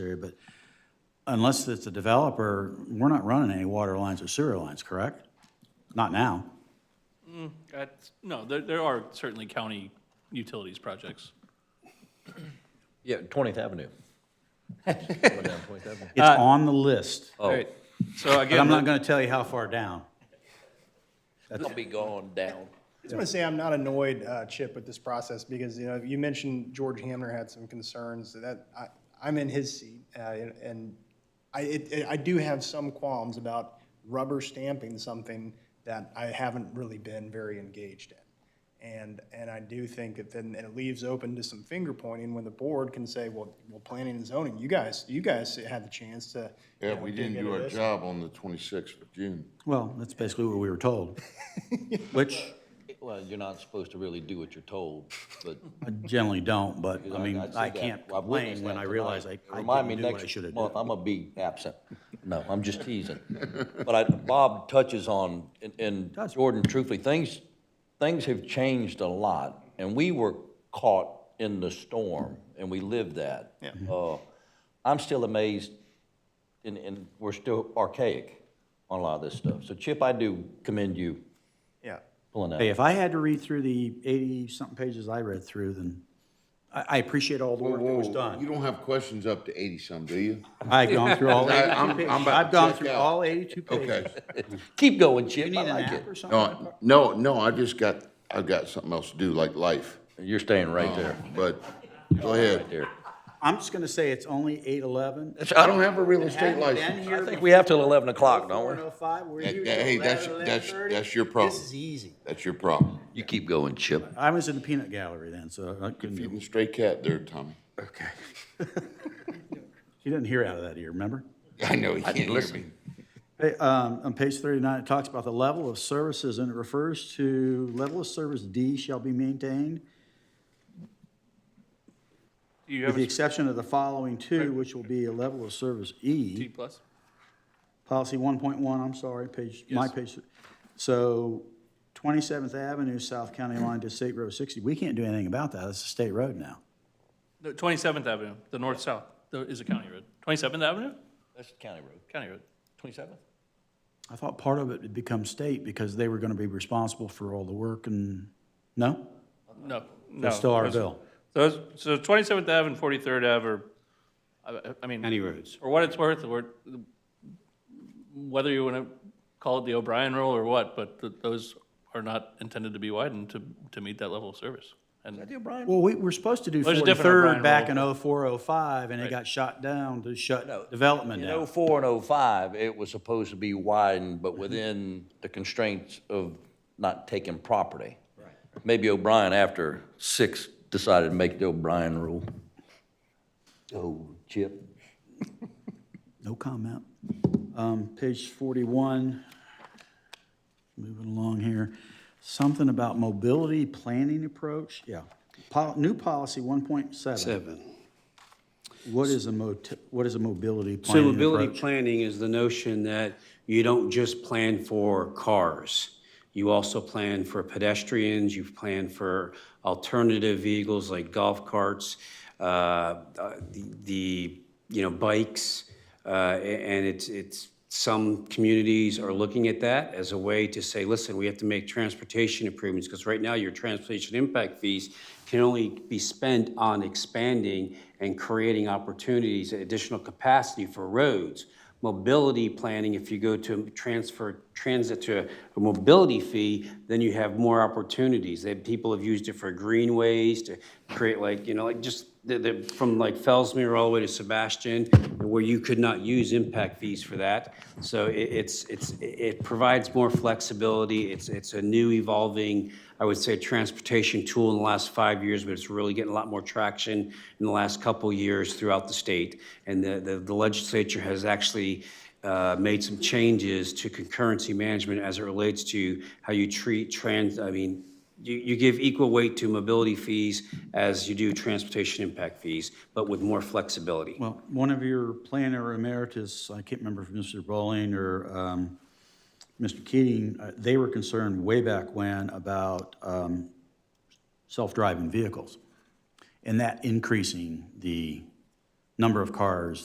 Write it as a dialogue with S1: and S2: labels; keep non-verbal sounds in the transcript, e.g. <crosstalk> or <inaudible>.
S1: area, but unless it's a developer, we're not running any water lines or sewer lines, correct? Not now.
S2: That's- No, there, there are certainly county utilities projects.
S3: Yeah,
S4: <laughs>
S3: 20th Avenue. Going down 20th Avenue.
S1: It's
S5: Uh,
S1: on the list,
S3: Oh.
S2: Right. So
S1: but I'm not
S2: again,
S1: gonna tell you how far down.
S4: I'll be going down.
S6: I just want to say I'm not annoyed, uh, Chip, with this process because, you know, you mentioned George Hamner had some concerns that I, I'm in his seat. uh, And I, it- it- I do have some qualms about rubber stamping something that I haven't really been very engaged in. And, and I do think that then it leaves open to some finger pointing when the board can say, well, well, planning and zoning, you guys, you guys had the chance to. you
S5: Yeah,
S6: know,
S5: we
S6: dig
S5: didn't do
S6: into
S5: our
S6: this.
S5: job on the twenty-sixth of June.
S1: Well, that's basically what we were
S5: <laughs>
S1: told, which
S3: Well, you're not supposed to really do what you're told, but.
S1: I generally don't, but I mean,
S3: I'd say
S1: I
S3: that.
S1: can't
S3: I've
S1: complain when
S3: witnessed that
S1: I
S3: tonight.
S1: realize I, I
S3: Remind me
S1: didn't do what I
S3: next
S1: should have
S3: month,
S1: done.
S3: I'm gonna be absent. No, I'm just <laughs> teasing. But I, Bob touches on, and- and
S1: Does.
S3: Jordan, truthfully, things, things have changed a lot, and we were caught in the storm, and we lived that.
S6: Yeah.
S3: Uh, I'm still amazed, and, and we're still archaic on a lot of this stuff. So Chip, I do commend you
S6: Yeah.
S3: pulling
S1: Hey,
S3: that.
S1: if I had to read through the eighty-something pages I read through, then I, I appreciate all the work that was
S5: You
S1: done.
S5: don't have questions up to eighty-some, do you?
S1: I've gone through all
S5: I-
S1: eighty-two
S5: <laughs> I'm-
S1: pages.
S5: I'm about
S1: I've
S5: to
S1: gone
S5: check
S1: through
S5: out.
S1: all eighty-two pages.
S5: Okay.
S3: Keep going, Chip,
S1: You
S3: I
S1: need an
S3: like
S1: app
S3: it.
S1: or something?
S5: <laughs> No, no, no, I just got, I've got something else to do, like life,
S3: You're staying right there,
S5: but go
S3: right
S5: ahead.
S3: there.
S1: I'm just gonna say it's only eight eleven.
S5: I don't have a real estate license.
S3: I think we have till 11 o'clock, don't we?
S1: Four and five, we're
S5: That-
S1: usually
S5: that- Hey, that's,
S1: 11,
S5: that's,
S1: 11:30.
S5: that's your problem.
S1: This is easy.
S5: That's your problem.
S3: You keep going, Chip.
S1: I was in the peanut gallery then, so I couldn't,
S5: Feeding
S1: do-
S5: the stray cat there, Tommy.
S3: Okay.
S1: she didn't hear out of that ear, remember?
S5: I know, he can't hear me.
S1: Hey, um, on page thirty-nine, it talks about the level of services, and it refers to level of service D shall be maintained,
S2: do you
S1: with
S2: have
S1: the
S2: a
S1: exception of the following two, which will be a level of service
S2: T
S1: E.
S2: plus?
S1: Policy one point one, I'm sorry, page, my page. So Twenty-seventh Avenue, South County line to State Road sixty, we can't do anything about that, it's a state road now.
S2: No, 27th Avenue, the north-south, there is a county road. 27th Avenue?
S3: That's County Road.
S2: County road.
S3: 27?
S1: I thought part of it had become state because they were gonna be responsible for all the work and, no?
S2: No, no.
S1: That's still our
S2: those-
S1: bill.
S2: Those, so 27th Ave and 43rd Ave are, I- I mean,
S1: roads.
S2: for what it's worth, or whether you want to call it the O'Brien rule or what, but th- those are not intended to be widened to, to meet that level of service. And
S1: Well, we were supposed to do
S2: Well, there's a different
S1: forty-third
S2: O'Brien
S1: back in
S2: rule.
S1: oh four, oh five, and it
S2: Right.
S1: got shot down to
S3: No,
S1: shut development
S3: In
S1: down.
S3: '04 and '05, it was supposed to be widened, but within the constraints of not taking property. Right. Maybe O'Brien after six decided to make the O'Brien rule. Oh, Chip.
S1: No comment. Um, page forty-one. Moving along here. Something about mobility planning approach, yeah. Pol- new policy one point seven.
S7: Seven.
S1: What is a mot, what is a mobility
S7: So
S1: planning
S7: mobility
S1: approach?
S7: planning is the notion that you don't just plan for cars. You also plan for pedestrians, you plan for alternative vehicles like golf carts, uh, uh, the, the, you know, bikes. uh, a- And it's, it's, some communities are looking at that as a way to say, listen, we have to make transportation improvements, because right now your transportation impact fees can only be spent on expanding and creating opportunities, additional capacity for roads. Mobility planning, if you go to transfer transit to a mobility fee, then you have more opportunities. That people have used it for greenways to create like, you know, like just the, the, from like Fellsmere all the way to Sebastian, where you could not use impact fees for that. So it, it's, it's, it provides more flexibility. It's, it's a new evolving, I would say, transportation tool in the last five years, but it's really getting a lot more traction in the last couple years throughout the state. And the, the the legislature has actually uh, made some changes to concurrency management as it relates to how you treat trans, I mean, you, you give equal weight to mobility fees as you do transportation impact fees, but with more flexibility.
S1: Well, one of your planner emeritus, I can't remember if Mr. Bowling or, um, Mr. Keating, uh, they were concerned way back when about, um, self-driving vehicles. And that increasing the number of cars